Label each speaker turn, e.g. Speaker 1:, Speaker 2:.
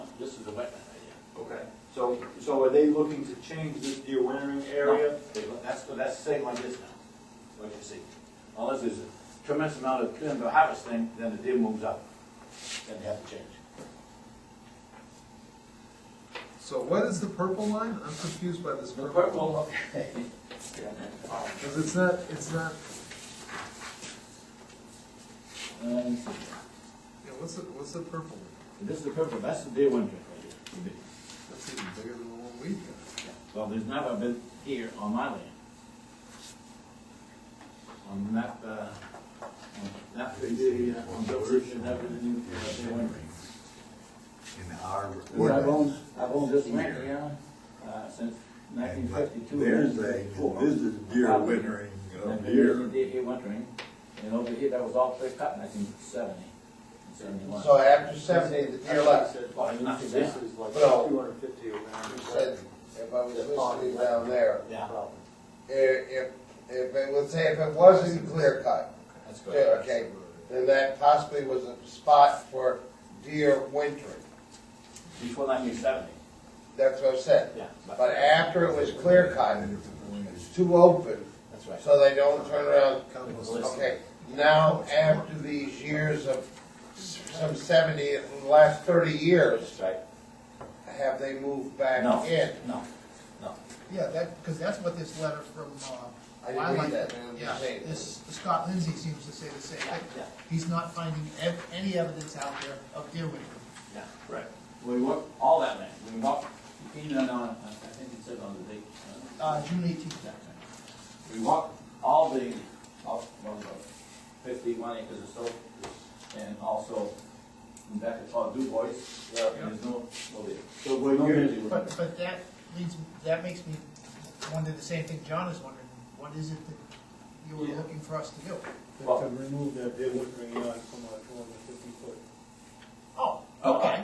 Speaker 1: This is the wetland
Speaker 2: Okay, so, so are they looking to change this deer wintering area?
Speaker 1: idea. That's, that's same like this now, what you see. Unless there's a tremendous amount of timber harvesting, then the deer moves up. Then they have to change.
Speaker 3: So what is the purple line? I'm confused by this
Speaker 1: The
Speaker 3: purple.
Speaker 1: purple, okay.
Speaker 3: Because it's not, it's not,
Speaker 1: And
Speaker 3: yeah, what's the, what's the purple one?
Speaker 1: This is the purple, that's the deer wintering right here. the big.
Speaker 3: That's even bigger than the one we've got.
Speaker 1: Well, there's never been here on my land. On that, uh, on that, the, uh, on those, there's never been, uh, deer wintering.
Speaker 4: in our
Speaker 1: I've owned,
Speaker 4: ordinance.
Speaker 1: I've owned this land here, uh, since nineteen fifty-two.
Speaker 4: There's a, this is deer wintering
Speaker 1: And
Speaker 4: of
Speaker 1: there is
Speaker 4: deer.
Speaker 1: a deer here wintering, and over here, that was all clear cut in nineteen seventy, seventy-one.
Speaker 5: So after seventy, the deer left,
Speaker 1: Well, nothing there.
Speaker 2: This is like
Speaker 5: Well,
Speaker 2: two hundred fifty or
Speaker 5: you
Speaker 2: nine.
Speaker 5: said, if I was listening down there,
Speaker 1: Yeah,
Speaker 5: i- if, if it was, say if it wasn't clear cut,
Speaker 1: that's
Speaker 5: yeah,
Speaker 1: correct.
Speaker 5: okay, then that possibly was a spot for deer wintering.
Speaker 1: Before nineteen seventy,
Speaker 5: That's what I said.
Speaker 1: yeah.
Speaker 5: But after it was clear cut, it's too open,
Speaker 1: That's right.
Speaker 5: so they don't turn around.
Speaker 3: Compost.
Speaker 5: Okay, now after these years of s- some seventy, in the last thirty years,
Speaker 1: That's right.
Speaker 5: have they moved back
Speaker 1: No,
Speaker 5: in?
Speaker 1: no, no.
Speaker 6: Yeah, that, because that's what this letter from,
Speaker 5: I
Speaker 6: uh,
Speaker 5: didn't read
Speaker 6: Wildlife,
Speaker 5: that, man, I'm just
Speaker 6: yeah,
Speaker 5: saying.
Speaker 6: this, Scott Lindsay seems to say the same
Speaker 1: Yeah.
Speaker 6: thing. He's not finding ev- any evidence out there of deer wintering.
Speaker 1: Yeah, right. We walked all that land, we walked, even on, uh, I think it said on the date, uh,
Speaker 6: Uh, June eighteenth,
Speaker 1: we walked all the, all, well, about fifty-one acres or so, and also in back it's called Dubois, there is no, no deer. So we're not
Speaker 6: but, but that leads, that makes me wonder the same thing John is wondering, what is it that you were
Speaker 1: Yeah.
Speaker 6: looking for us to do?
Speaker 1: Well,
Speaker 7: remove that deer wintering
Speaker 6: Oh,